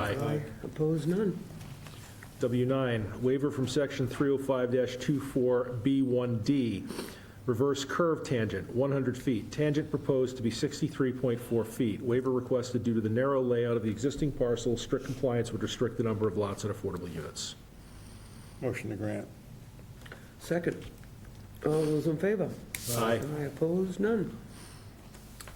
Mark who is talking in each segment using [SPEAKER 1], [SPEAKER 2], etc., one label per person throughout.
[SPEAKER 1] Aye.
[SPEAKER 2] Opposed, none.
[SPEAKER 1] W9, waiver from section 305-24B1D, reverse curve tangent, 100 feet. Tangent proposed to be 63.4 feet. Waiver requested due to the narrow layout of the existing parcel. Strict compliance would restrict the number of lots and affordable units.
[SPEAKER 3] Motion to grant.
[SPEAKER 2] Second. All those in favor?
[SPEAKER 1] Aye.
[SPEAKER 2] Aye, opposed, none.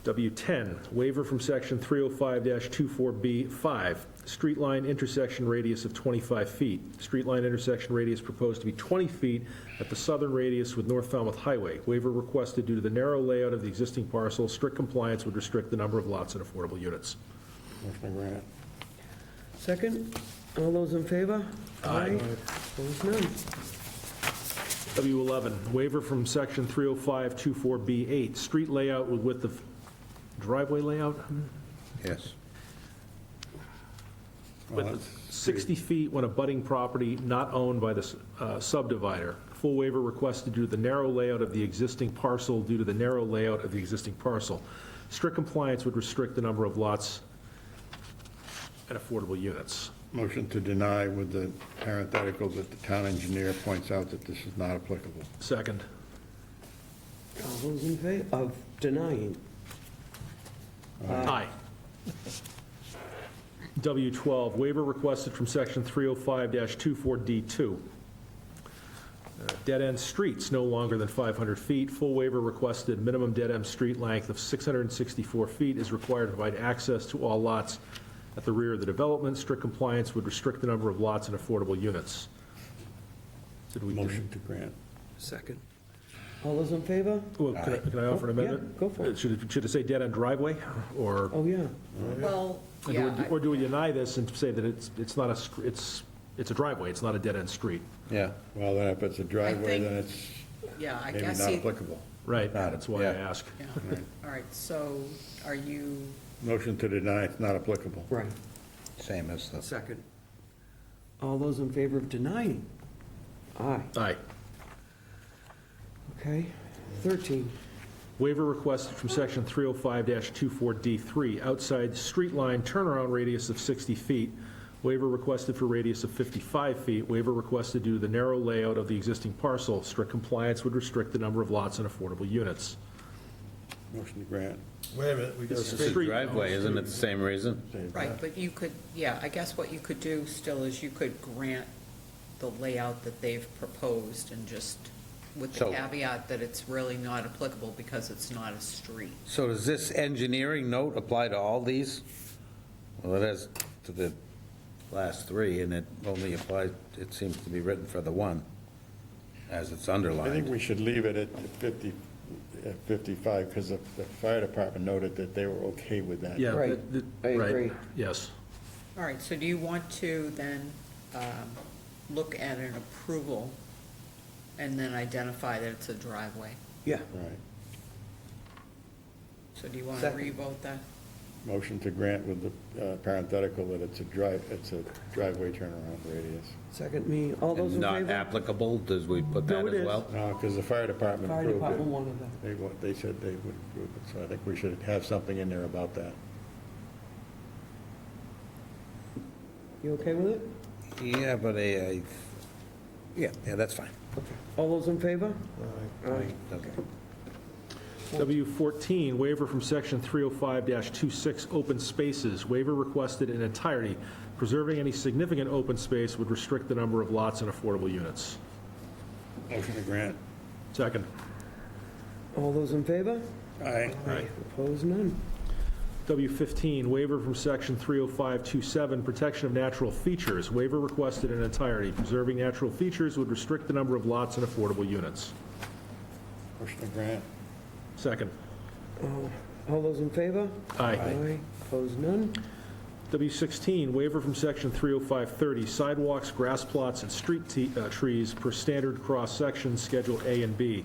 [SPEAKER 1] W10, waiver from section 305-24B5, street line intersection radius of 25 feet. Street line intersection radius proposed to be 20 feet at the southern radius with North Falmouth Highway. Waiver requested due to the narrow layout of the existing parcel. Strict compliance would restrict the number of lots and affordable units.
[SPEAKER 3] Motion to grant.
[SPEAKER 2] Second. All those in favor?
[SPEAKER 1] Aye.
[SPEAKER 2] Opposed, none.
[SPEAKER 1] W11, waiver from section 305-24B8, street layout with width of driveway layout?
[SPEAKER 3] Yes.
[SPEAKER 1] With the 60 feet when abutting property not owned by the s- uh, subdivider. Full waiver requested due to the narrow layout of the existing parcel, due to the narrow layout of the existing parcel. Strict compliance would restrict the number of lots and affordable units.
[SPEAKER 3] Motion to deny with the parenthetical that the town engineer points out that this is not applicable.
[SPEAKER 1] Second.
[SPEAKER 2] All those in favor of denying?
[SPEAKER 1] Aye. W12, waiver requested from Section 305-24D2. Uh, Dead-end streets no longer than 500 feet. Full waiver requested, minimum dead-end street length of 664 feet is required to provide access to all lots at the rear of the development. Strict compliance would restrict the number of lots and affordable units. Did we?
[SPEAKER 3] Motion to grant.
[SPEAKER 2] Second. All those in favor?
[SPEAKER 1] Well, Oh, Can I- can I offer an
[SPEAKER 2] Yeah,
[SPEAKER 1] amendment? Uh,
[SPEAKER 2] go for it.
[SPEAKER 1] Should it should it say dead-end driveway, or?
[SPEAKER 2] Oh, yeah.
[SPEAKER 4] Well,
[SPEAKER 1] Or do
[SPEAKER 4] yeah,
[SPEAKER 1] we- Or do we deny this and say that it's, it's not a, str- it's, it's a driveway, it's not a dead-end street?
[SPEAKER 3] Yeah. Well, then if it's a driveway,
[SPEAKER 4] think-
[SPEAKER 3] then it's
[SPEAKER 4] I- yeah, I
[SPEAKER 3] maybe
[SPEAKER 4] guess,
[SPEAKER 3] not
[SPEAKER 4] he-
[SPEAKER 3] applicable.
[SPEAKER 1] Right,
[SPEAKER 3] Got it,
[SPEAKER 1] that's why I
[SPEAKER 3] yeah.
[SPEAKER 1] ask.
[SPEAKER 4] yeah. all right, so are you,
[SPEAKER 3] Motion to deny, it's not applicable.
[SPEAKER 2] Right.
[SPEAKER 5] Same as the,
[SPEAKER 2] Second. All those in favor of denying? Aye.
[SPEAKER 1] Aye.
[SPEAKER 2] Okay. 13.
[SPEAKER 1] Waiver requested from section 305-24D3, outside street line turnaround radius of 60 feet. Waiver requested for radius of 55 feet. Waiver requested due to the narrow layout of the existing parcel. Strict compliance would restrict the number of lots and affordable units.
[SPEAKER 3] Motion to grant.
[SPEAKER 6] Wait a minute, we got a
[SPEAKER 1] This is
[SPEAKER 6] street.
[SPEAKER 1] street.
[SPEAKER 5] driveway, isn't it the same reason?
[SPEAKER 4] right, but you could, yeah, I guess what you could do still is you could grant the layout that they've proposed and just with the
[SPEAKER 5] So-
[SPEAKER 4] caveat that it's really not applicable because it's not a street.
[SPEAKER 5] So does this engineering note apply to all these? Well, it has to the last three, and it only applies, it seems to be written for the one, as it's
[SPEAKER 3] I think
[SPEAKER 5] underlined.
[SPEAKER 3] we should leave it at 50, at 55, because the the fire department noted that they were okay with that.
[SPEAKER 1] Yeah,
[SPEAKER 2] Right.
[SPEAKER 1] th- th-
[SPEAKER 2] I
[SPEAKER 1] right,
[SPEAKER 2] agree.
[SPEAKER 1] Yes.
[SPEAKER 4] All right, so do you want to then um, look at an approval and then identify that it's a driveway?
[SPEAKER 2] Yeah.
[SPEAKER 3] Right.
[SPEAKER 4] So do you want to
[SPEAKER 2] Second.
[SPEAKER 4] revote that?
[SPEAKER 3] Motion to grant with the uh, parenthetical that it's a drive, it's a driveway turnaround radius.
[SPEAKER 2] Second me. All those in
[SPEAKER 5] And not
[SPEAKER 2] favor?
[SPEAKER 5] applicable, does we put
[SPEAKER 2] No,
[SPEAKER 5] that
[SPEAKER 2] it is.
[SPEAKER 5] as well?
[SPEAKER 3] No, because the fire department
[SPEAKER 2] Fire
[SPEAKER 3] approved
[SPEAKER 2] department
[SPEAKER 3] it.
[SPEAKER 2] wanted that.
[SPEAKER 3] They, wa- they said they would approve it, so I think we should have something in there about that.
[SPEAKER 2] You okay with it?
[SPEAKER 5] Yeah, but I, I- yeah, yeah, that's fine.
[SPEAKER 2] All those in favor? Aye.
[SPEAKER 5] Okay.
[SPEAKER 1] W14, waiver from section 305-26, open spaces. Waiver requested in entirety. Preserving any significant open space would restrict the number of lots and affordable units.
[SPEAKER 3] Motion to grant.
[SPEAKER 1] Second.
[SPEAKER 2] All those in favor?
[SPEAKER 3] Aye.
[SPEAKER 1] Aye.
[SPEAKER 2] Opposed, none.
[SPEAKER 1] W15, waiver from section 305-27, protection of natural features. Waiver requested in entirety. Preserving natural features would restrict the number of lots and affordable units.
[SPEAKER 3] Motion to grant.
[SPEAKER 1] Second.
[SPEAKER 2] All those in favor?
[SPEAKER 1] Aye.
[SPEAKER 2] Aye. Opposed, none.
[SPEAKER 1] W16, waiver from section 30530, sidewalks, grass plots, and street te- uh, trees per standard cross-section, Schedule A and B.